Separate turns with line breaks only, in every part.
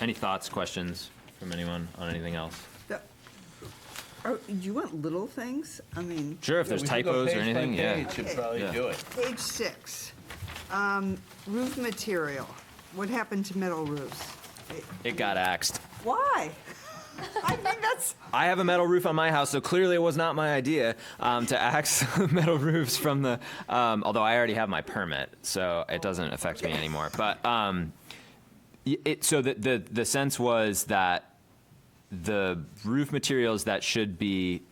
Any thoughts, questions from anyone on anything else?
The- oh, You want little things? I mean,
Sure, if there's typos or anything, yeah.
Should probably
Yeah.
do it.
page six, um, roof material. What happened to metal roofs?
It got axed.
Why? I think that's,
I have a metal roof on my house, so clearly it was not my idea um, to axe metal roofs from the. Um, although I already have my permit, so it doesn't affect me anymore. But um, y- it, so the, the the sense was that the roof materials that should be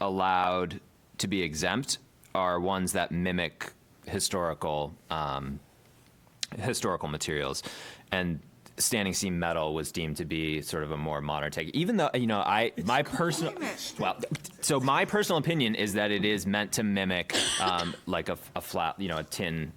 allowed to be exempt are ones that mimic historical um, historical materials and standing seam metal was deemed to be sort of a more modern take even though you know i my personal
climate.
well so my personal opinion is that it is meant to mimic um, like a, a flat you know a tin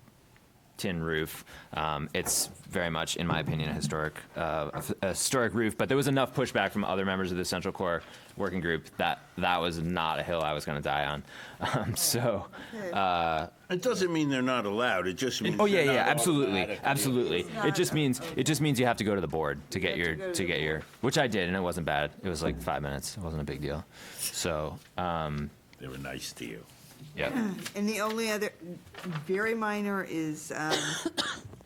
tin roof. Um, it's very much, in my opinion, a historic, uh, a f- a historic roof. But there was enough pushback from other members of the Central Core Working Group that that was not a hill I was going to die on. Um, so, Uh.
It doesn't mean they're not allowed, it just means.
oh yeah,
they're
yeah,
not
absolutely,
automatically-
absolutely. It just means it just means you have to go to the board to get
have to
your
go to
to
the
get your, which I did, and it wasn't bad. It was like five minutes. It wasn't a big deal. So, uh,
They were nice to you.
yeah.
and the only other, very minor is, um,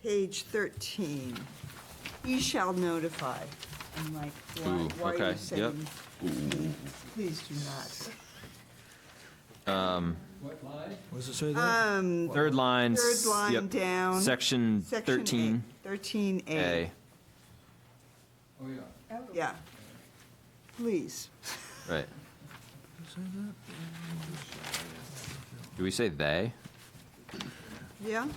page thirteen. He shall notify. I'm like,
Ooh,
why, why are
okay,
you
yep.
saying? Please do not.
Um.
Was it say that?
Um,
Third line.
Third line
yep.
down.
Section
Section
thirteen
Thirteen
A.
A,
Oh, yeah.
yeah. Please.
Right. Do we say they?
Yeah,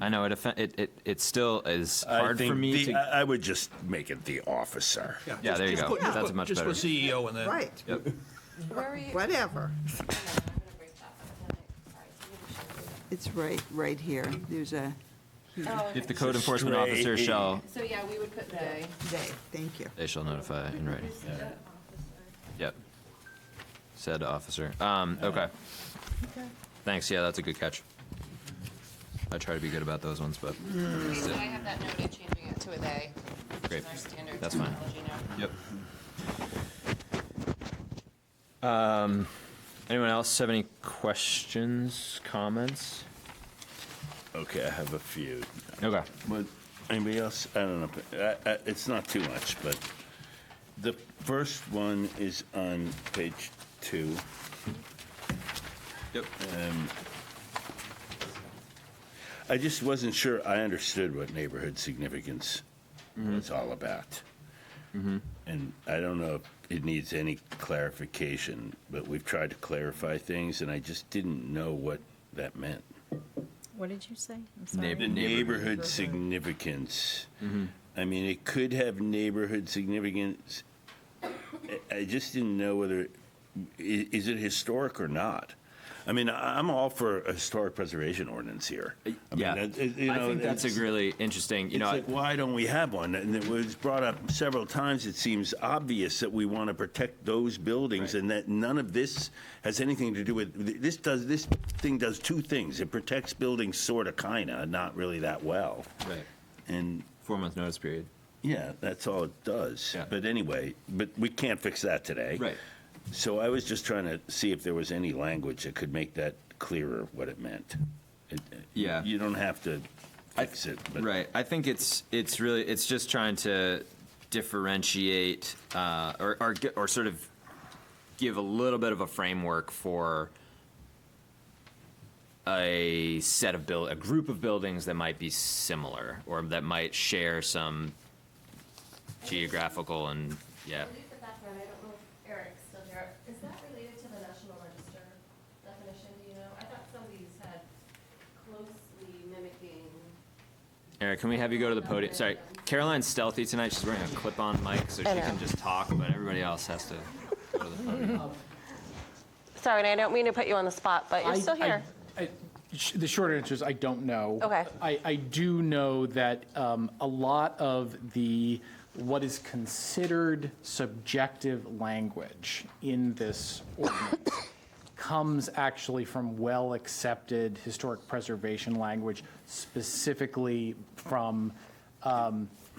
I know it offen- it, it it still is
I
hard for
think
me
the- uh,
to.
I I would just make it the officer.
yeah, there you go.
just
That's much
Just
better.
put CEO in there.
right,
Yep.
Where are you?
whatever.
Hang on, I'm gonna break that up.
It's right, right here. There's a
Sorry, it's
If the
gonna be-
code enforcement officer
Stray.
shall,
Oh, okay. So, yeah, we would put they.
they, thank you.
they shall notify in writing.
Who's the officer?
Yep. Said officer. Um. Okay. Thanks. Yeah, that's a good catch. I try to be good about those ones, but
Okay, so I have that noted, changing it to a they. which
Great.
is Mm. our standard
That's fine.
terminology now.
yep. Um. Um, Anyone else have any questions, comments?
Okay, I have a few.
Okay.
But anybody else? I don't know. but I- I- It's not too much, but the first one is on page two.
Yep.
Um, I just wasn't sure I understood what neighborhood significance was all about. And I don't know if it needs any clarification, but we've tried to clarify things, and I just didn't know what that meant.
What did you say? I'm
Neighbor- Mm-hmm.
sorry.
The neighborhood significance. I mean, it could have neighborhood significance. I- I just didn't know whether, i- is it historic or not? I mean, I- I'm all for a historic preservation ordinance here. I mean,
Uh, Yeah,
that- it- you
I
know,
think that's a
it's-
really interesting. You
It's
know,
like, why don't we have one? And it was brought up several times. It seems obvious that we want to protect those buildings and that none of this has anything to do with, this does, this thing does two things. It protects buildings sort of, kind of, not really that well.
right.
And,
Four month notice period.
yeah, that's all it does.
Yeah.
But anyway, but we can't fix that today. So I was just trying to see if there was any language that could make that clearer what it meant. It-
Yeah.
You don't have to fix it, but.
Right. I think it's it's really it's just trying to differentiate uh, or or gi- or sort of give a little bit of a framework for a set of build a group of buildings that might be similar or that might share some geographical and yeah.
I believe the background, I don't know if Eric's still here, is that related to the National Register definition, do you know? I thought some of these had closely mimicking,
Eric, can we have you go to the podium? Sorry, Caroline's stealthy tonight. She's wearing a clip-on mic, so she can just talk, but everybody else has to go to the podium.
Sorry, and I don't mean to put you on the spot, but
I- I- I- sh- The short answer is I don't know.
Okay.
I, I do know that um, a lot of the, what is considered subjective language in this ordinance comes actually from well-accepted historic preservation language, specifically from um,